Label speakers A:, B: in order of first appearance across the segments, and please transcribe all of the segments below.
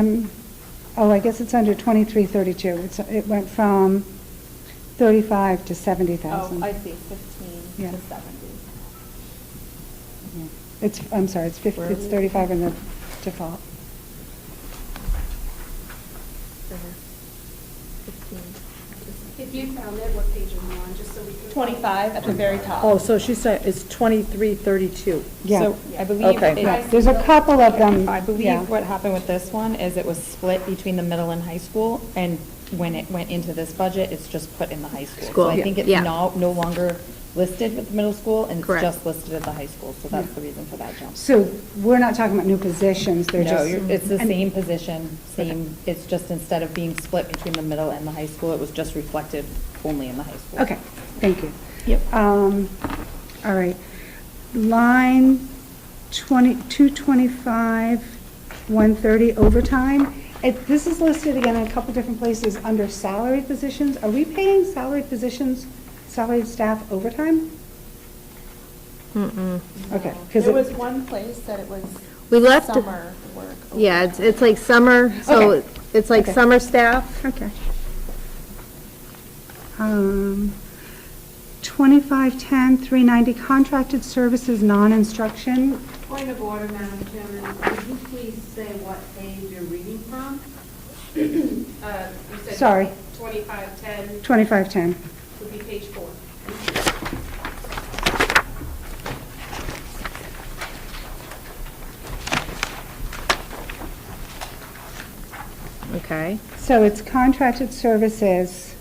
A: Um, Oh, I guess it's under 2332. It's- It went from 35 to 70,000.
B: Oh, I see, fifteen
A: Yeah.
B: to seventy.
A: Yeah. It's, I'm sorry, it's 50,
B: Where are
A: it's
B: we?
A: 35 in the default.
B: Fifteen.
C: If you found it, what page are you on, just so we can.
B: Twenty-five at the very top.
D: Oh, so she's saying it's 2332.
A: Yeah.
B: So I believe
D: Okay.
B: it-
A: Yeah, there's a couple of them,
B: I
A: yeah.
B: believe what happened with this one is it was split between the middle and high school, and when it went into this budget, it's just put in the high school.
D: School,
B: So I think it's
D: yeah.
B: now no longer listed with the middle school, and it's
D: Correct.
B: just listed at the high school, so that's the reason for that jump.
A: So we're not talking about new positions, they're
B: No,
A: just.
B: you're- it's the
A: and-
B: same position, same, it's just instead of being split between the middle and the high school, it was just reflected only in the high school.
A: Okay, thank you.
B: Yep.
A: Um, All right. Line 20, 225, 130 overtime. It- This is listed again in a couple different places under salary positions. Are we paying salaried positions, salaried staff overtime?
D: Mm-mm.
A: Okay. 'cause
C: There
A: it-
C: was one place that it was
D: We left it-
C: summer work.
D: Yeah, it's, it's like summer, so
A: Okay.
D: it's like
A: Okay.
D: summer staff.
A: Okay. Um, 2510, 390, contracted services, non-instruction.
E: Point of order, Madam Chairman, could you please say what page you're reading from? Uh, You said
A: Sorry.
E: 2510
A: 2510.
E: would be page four.
D: Okay.
A: So it's contracted services,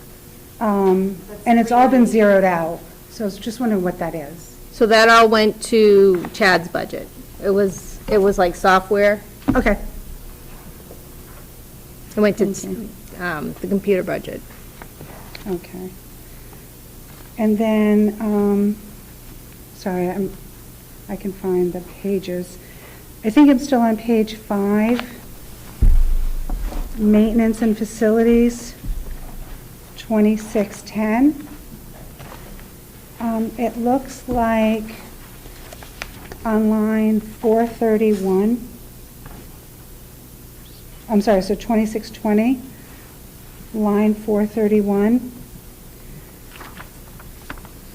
A: um, and it's all been zeroed out. So I was just wondering what that is.
D: So that all went to Chad's budget. It was, it was like software.
A: Okay,
D: It went to
A: Okay.
D: um, the computer budget.
A: okay. And then, um, sorry, I'm, I can find the pages. I think I'm still on page five. Maintenance and facilities, 2610. Um, It looks like on line 431, I'm sorry, so 2620, line 431,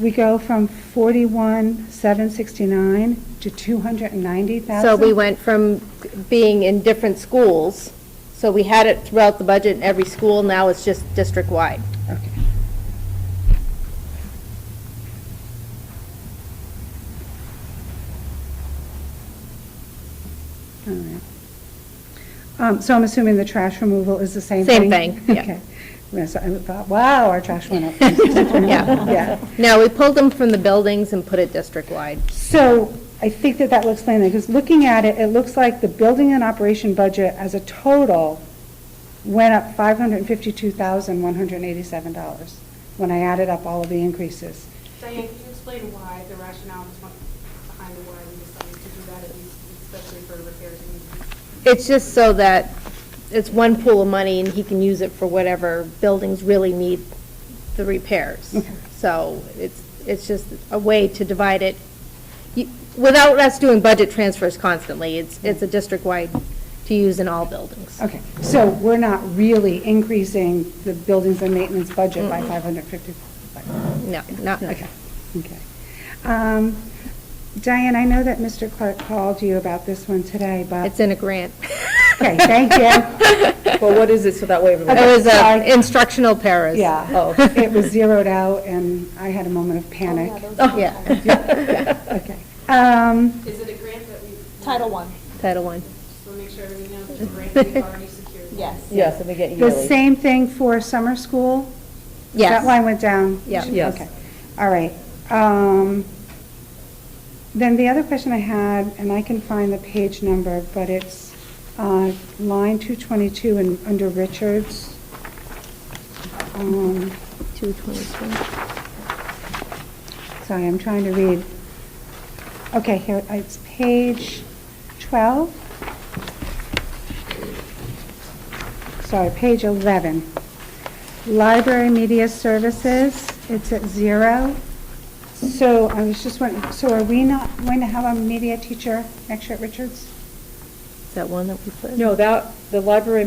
A: we go from 41,769 to 290,000.
D: So we went from being in different schools, so we had it throughout the budget in every school, now it's just district-wide.
A: Okay. All right. Um, So I'm assuming the trash removal is the same
D: Same
A: thing?
D: thing, yeah.
A: Okay. Yeah, so I thought, wow, our trash went up.
D: Yeah. No, we pulled them from the buildings and put it district-wide.
A: So I think that that will explain it, because looking at it, it looks like the building and operation budget as a total went up $552,187 when I added up all of the increases.
C: Diane, can you explain why the rationale was behind why we decided to do that, at least especially for repairs and maintenance?
D: It's just so that it's one pool of money and he can use it for whatever buildings really need the repairs. So it's, it's just a way to divide it, You- without us doing budget transfers constantly. It's, it's a district-wide to use in all buildings.
A: Okay, so we're not really increasing the buildings and maintenance budget by 550?
D: No, not,
A: Okay, okay. Um, Diane, I know that Mr. Clark called you about this one today, but...
D: it's in a grant.
A: Okay, thank you.
F: Well, what is it, so that way everybody,
D: It was uh,
A: Sorry.
D: instructional paras.
A: Yeah.
F: Oh.
A: It was zeroed out, and I had a moment
C: Oh,
A: of panic.
D: Oh, Yeah,
A: Okay. Um,
C: Is it a grant that we?
B: Title one,
D: Title I.
C: Just want to make sure everything knows, the grant we've already secured.
B: yes.
F: yeah, so they get
A: The
F: yearly.
A: same thing for summer school? That
D: Yes.
A: line went down?
D: Yeah.
F: Yes.
A: Okay, all right. Um, Then the other question I had, and I can find the page number, but it's uh, line 222 and under Richards. Um,
D: 222.
A: Sorry, I'm trying to read. Okay, here, it's page 12. Sorry, page 11. Library media services, it's at zero. So I was just wondering, so are we not going to have a media teacher next year at Richards?
G: that one that we put?
F: Uh,
D: No, that, the library